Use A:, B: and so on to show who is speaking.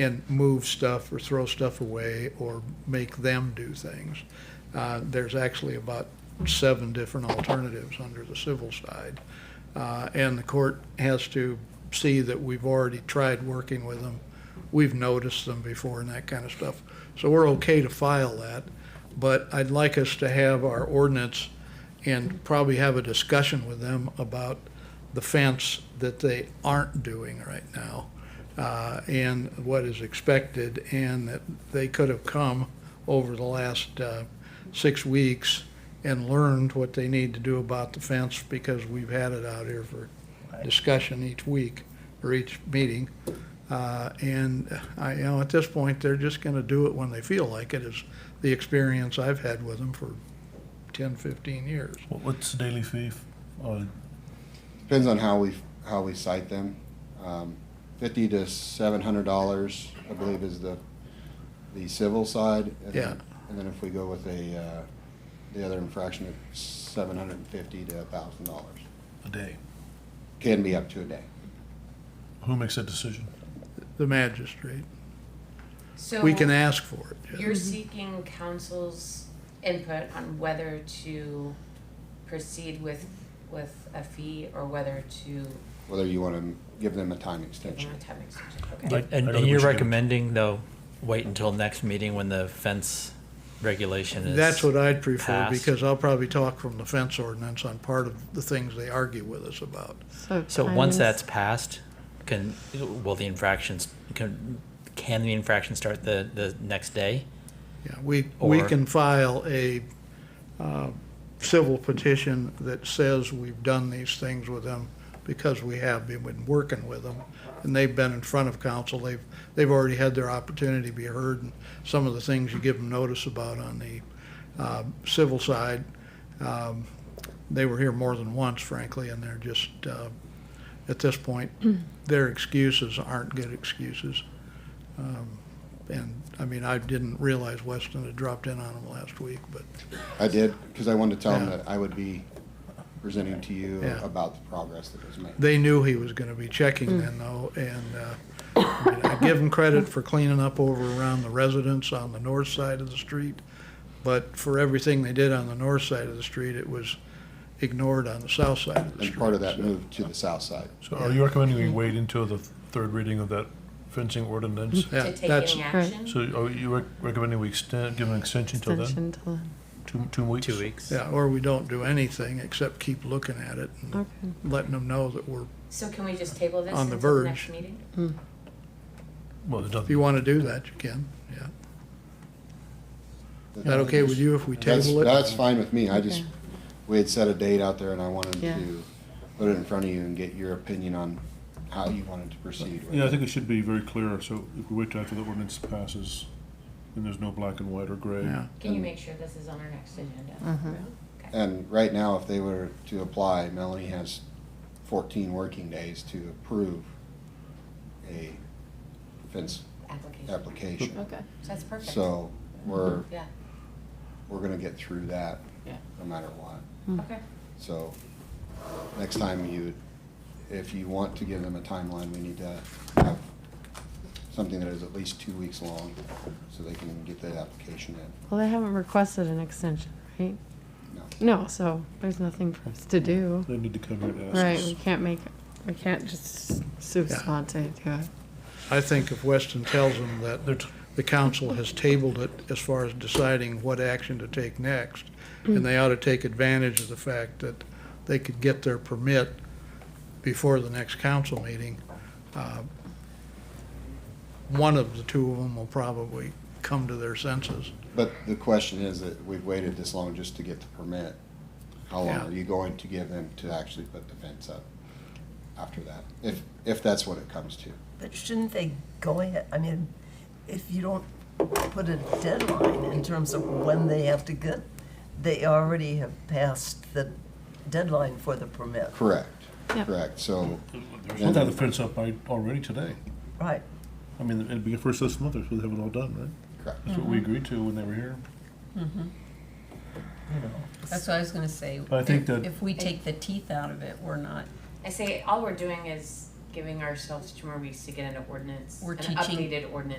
A: and move stuff or throw stuff away or make them do things. Uh, There's actually about seven different alternatives under the civil side. Uh, And the court has to see that we've already tried working with them. We've noticed them before and that kind of stuff. So we're okay to file that, but I'd like us to have our ordinance and probably have a discussion with them about the fence that they aren't doing right now uh, and what is expected, and that they could have come over the last uh, six weeks and learned what they need to do about the fence, because we've had it out here for discussion each week, or each meeting. Uh, And I, you know, at this point, they're just gonna do it when they feel like it, is the experience I've had with them for 10, 15 years.
B: What, what's the daily fee? f- Uh,
C: Depends on how we, how we cite them. Um, Fifty to seven hundred dollars, I believe, is the, the civil side. and then-
A: Yeah.
C: And then if we go with a, uh, the other infraction, it's seven hundred and fifty to a thousand dollars.
B: a day.
C: Can be up to a day.
B: Who makes that decision?
A: The magistrate,
D: So
A: we can ask for it.
D: you're seeking council's input on whether to proceed with with a fee or whether to
C: Whether you want to give them a time
D: give
C: extension.
D: them a time extension. Okay.
B: Like-
E: And, and
B: I don't
E: and
B: think we
E: you're
B: should do it.
E: recommending, though, wait until next meeting when the fence regulation is?
A: That's what I'd prefer,
E: passed.
A: because I'll probably talk from the fence ordinance on part of the things they argue with us about.
E: So once
F: times-
E: that's passed, can, will the infractions, can, can the infraction start the, the next day?
A: Yeah, we, we
E: Or-
A: can file a uh, civil petition that says we've done these things with them because we have been been working with them, and they've been in front of council, they've, they've already had their opportunity to be heard, and some of the things you give them notice about on the uh, civil side, um, they were here more than once, frankly, and they're just, uh, at this point, their excuses aren't good excuses. Um, And, I mean, I didn't realize Weston had dropped in on them last week, but
C: I did, because I wanted to tell them
A: Yeah.
C: that I would be presenting to you
A: Yeah.
C: about the progress that was made.
A: they knew he was gonna be checking then though, and, uh, I mean, I give him credit for cleaning up over around the residents on the north side of the street, but for everything they did on the north side of the street, it was ignored on the south side of the
C: And
A: street.
C: part of that moved to the south side.
B: So are you recommending we wait until the third reading of that fencing ordinance?
A: Yeah,
D: To take
A: that's-
D: any action.
B: So are you rec- recommending we extend, give an extension till then?
F: Extension till then.
B: Two, two weeks?
E: Two weeks?
A: Yeah, or we don't do anything except keep looking at it and
F: Okay.
A: letting them know that we're,
D: So can we just table this
A: On the
D: until the next
A: verge.
D: meeting?
B: Well, there's
A: if you
B: nothing,
A: wanna do that, you can, yeah. Is that okay with you if we
C: That's,
A: table it?
C: that's fine with me. I just,
F: Okay.
C: we had set a date out there and I wanted
F: Yeah.
C: to put it in front of you and get your opinion on how you wanted to proceed with
B: yeah, I
C: it.
B: think it should be very clear, so if we wait till after the ordinance passes, then there's no black and white or gray.
A: Yeah.
D: Can you
C: And-
D: make sure this is on our next agenda? Okay.
C: And right now, if they were to apply, Melanie has fourteen working days to approve a fence
D: Application.
C: application.
F: Okay.
D: So that's perfect.
C: So we're,
D: Yeah,
C: we're gonna get through that
D: Yeah.
C: no matter what.
D: Mm.
F: Hmm. Mm.
D: okay.
C: So next time you, if you want to give them a timeline, we need to have something that is at least two weeks long so they can get that application in.
F: Well, they haven't requested an extension, right?
C: No.
F: No, so there's nothing for us to do.
B: They need to come here and
F: Right,
B: ask us.
F: we can't make, we can't just sue
A: Yeah.
F: sponte to it.
A: I think if Weston tells them that
B: They're t-
A: the council has tabled it as far as deciding what action to take next, and they ought to take advantage of the fact that they could get their permit before the next council meeting, uh, one of the two of them will probably come to their senses.
C: But the question is that we've waited this long just to get the permit. How long
A: Yeah.
C: are you going to give them to actually put the fence up after that? If, if that's what it comes to.
G: But shouldn't they go ahead, I mean, if you don't put a deadline in terms of when they have to get, they already have passed the deadline for the permit,
C: Correct,
F: Yeah.
C: correct. So
B: They should have the fence up by, already today.
G: right?
B: I mean, it'd be first this month, so they have it all done, right?
C: Correct.
B: That's what we agreed to when they were here.
G: You know,
H: That's what I was gonna say.
B: I think
H: If-
B: that-
H: If we take the teeth out of it, we're not,
D: I say, all we're doing is giving ourselves two more weeks to get an ordinance,
H: We're
D: an
H: teaching-
D: updated ordinance